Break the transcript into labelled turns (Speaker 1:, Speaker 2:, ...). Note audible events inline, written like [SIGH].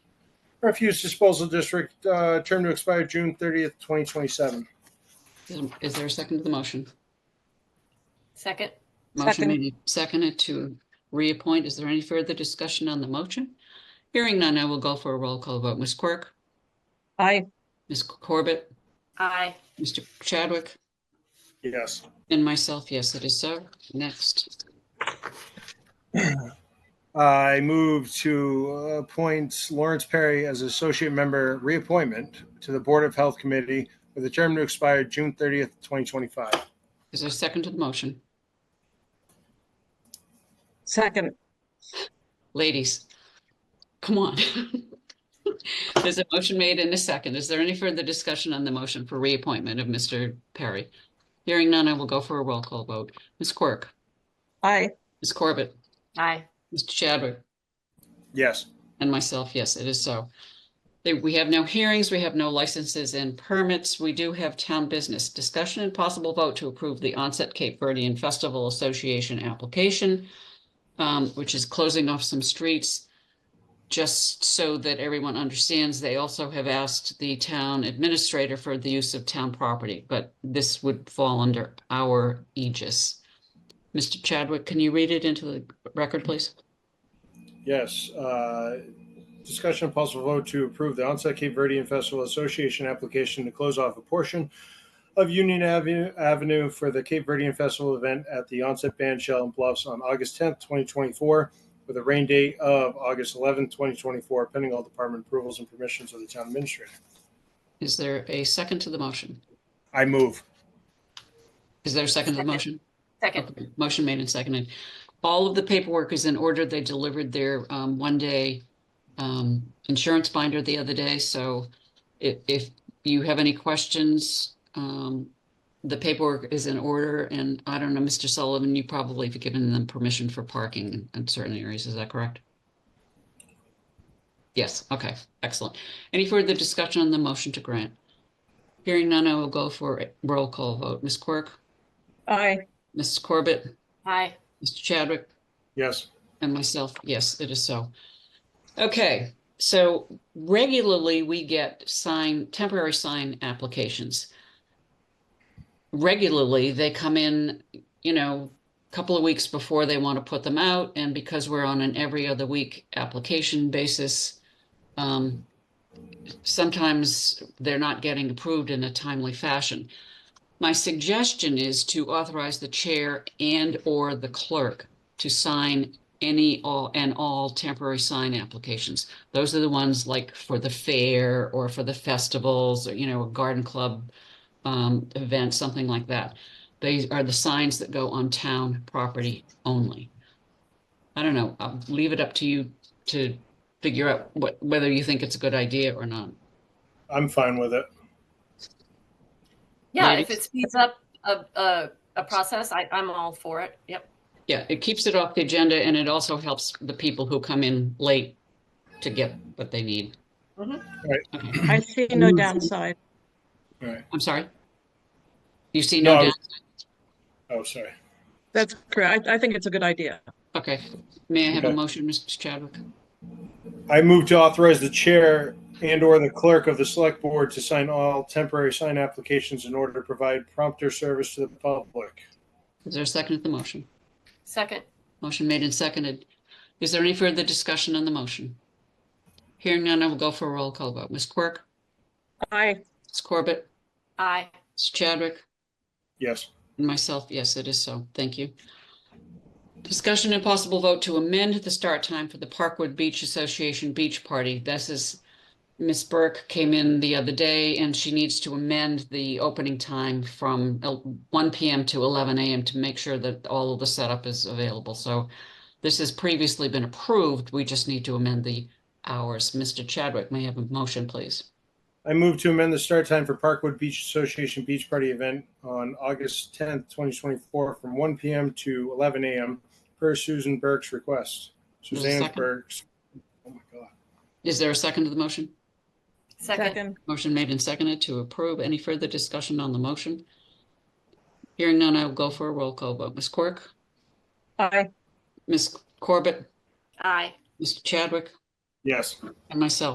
Speaker 1: Refuse Disposal District, uh, term to expire June 30th, 2027.
Speaker 2: Is- Is there a second to the motion?
Speaker 3: Second.
Speaker 2: Motion
Speaker 4: Second.
Speaker 2: made and seconded to reappoint. Is there any further discussion on the motion? Hearing none, I will go for a roll call vote. Ms. Quirk,
Speaker 4: Aye.
Speaker 2: Ms. Corbett,
Speaker 3: Aye.
Speaker 2: Mr. Chadwick,
Speaker 1: Yes.
Speaker 2: and myself, yes, it is so. Next,
Speaker 1: I move to appoint Lawrence Perry as associate member reappointment to the Board of Health Committee with a term to expire June 30th, 2025.
Speaker 2: is there a second to the motion?
Speaker 4: Second.
Speaker 2: Ladies, come on. [LAUGHS] There's a motion made and a second. Is there any further discussion on the motion for reappointment of Mr. Perry? Hearing none, I will go for a roll call vote. Ms. Quirk,
Speaker 4: Aye.
Speaker 2: Ms. Corbett,
Speaker 3: Aye.
Speaker 2: Mr. Chadwick,
Speaker 1: Yes.
Speaker 2: And myself, yes, it is so. They- We have no hearings, we have no licenses and permits. We do have town business discussion and possible vote to approve the onset Cape Verdean Festival Association application, um, which is closing off some streets. Just so that everyone understands, they also have asked the town administrator for the use of town property, but this would fall under our aegis. Mr. Chadwick, can you read it into the record, please?
Speaker 1: Yes. Uh, Discussion and possible vote to approve the onset Cape Verdean Festival Association application to close off a portion of Union Avenue Avenue for the Cape Verdean Festival event at the onset band shell and bluffs on August 10th, 2024, with a rain date of August 11th, 2024, pending all department approvals and permissions of the town administrator.
Speaker 2: Is there a second to the motion?
Speaker 1: I move.
Speaker 2: Is there a second to the
Speaker 3: Second.
Speaker 2: motion?
Speaker 3: Second.
Speaker 2: Okay, Motion made and seconded. All of the paperwork is in order. They delivered their um, one-day um, insurance binder the other day, so if, if you have any questions, um, the paperwork is in order, and I don't know, Mr. Sullivan, you probably have given them permission for parking in- in certain areas, is that correct? Yes, okay, excellent. Any further discussion on the motion to grant? Hearing none, I will go for a roll call vote. Ms. Quirk,
Speaker 4: Aye.
Speaker 2: Mrs. Corbett,
Speaker 3: Aye.
Speaker 2: Mr. Chadwick
Speaker 1: Yes.
Speaker 2: and myself, yes, it is so. Okay, so regularly we get sign, temporary sign applications. Regularly, they come in, you know, a couple of weeks before they want to put them out, and because we're on an every other week application basis, um, sometimes they're not getting approved in a timely fashion. My suggestion is to authorize the chair and/or the clerk to sign any all and all temporary sign applications. Those are the ones like for the fair or for the festivals or, you know, a garden club um, event, something like that. They are the signs that go on town property only. I don't know, I'll leave it up to you to figure out what, whether you think it's a good idea or not.
Speaker 1: I'm fine with it.
Speaker 3: Yeah,
Speaker 2: Ladies?
Speaker 3: if it speeds up a, a, a process, I, I'm all for it. Yep.
Speaker 2: Yeah, it keeps it off the agenda and it also helps the people who come in late to get what they need.
Speaker 3: Mhm.
Speaker 1: Right.
Speaker 2: Okay.
Speaker 4: I see no downside.
Speaker 1: All right.
Speaker 2: I'm sorry. You see no
Speaker 1: No.
Speaker 2: doubt?
Speaker 1: Oh, sorry.
Speaker 4: That's correct. I, I think it's a good idea.
Speaker 2: Okay. May I have a
Speaker 1: Okay.
Speaker 2: motion, Mr. Chadwick?
Speaker 1: I move to authorize the chair and/or the clerk of the select board to sign all temporary sign applications in order to provide prompter service to the public.
Speaker 2: Is there a second to the motion?
Speaker 3: Second.
Speaker 2: Motion made and seconded. Is there any further discussion on the motion? Hearing none, I will go for a roll call vote. Ms. Quirk,
Speaker 4: Aye.
Speaker 2: Ms. Corbett,
Speaker 3: Aye.
Speaker 2: Ms. Chadwick,
Speaker 1: Yes.
Speaker 2: and myself, yes, it is so. Thank you. Discussion and possible vote to amend the start time for the Parkwood Beach Association Beach Party. This is Miss Burke came in the other day and she needs to amend the opening time from el- one PM to eleven AM to make sure that all of the setup is available. So this has previously been approved. We just need to amend the hours. Mr. Chadwick, may I have a motion, please?
Speaker 1: I move to amend the start time for Parkwood Beach Association Beach Party event on August 10th, 2024, from 1 p.m. to 11 a.m. per Susan Burke's request.
Speaker 2: There's a
Speaker 1: Suzanne
Speaker 2: second?
Speaker 1: Burke's. Oh my God.
Speaker 2: Is there a second to the motion?
Speaker 3: Second.
Speaker 2: Motion made and seconded to approve. Any further discussion on the motion? Hearing none, I will go for a roll call vote. Ms. Quirk,
Speaker 4: Aye.
Speaker 2: Ms. Corbett,
Speaker 3: Aye.
Speaker 2: Mr. Chadwick,
Speaker 1: Yes.
Speaker 2: and myself.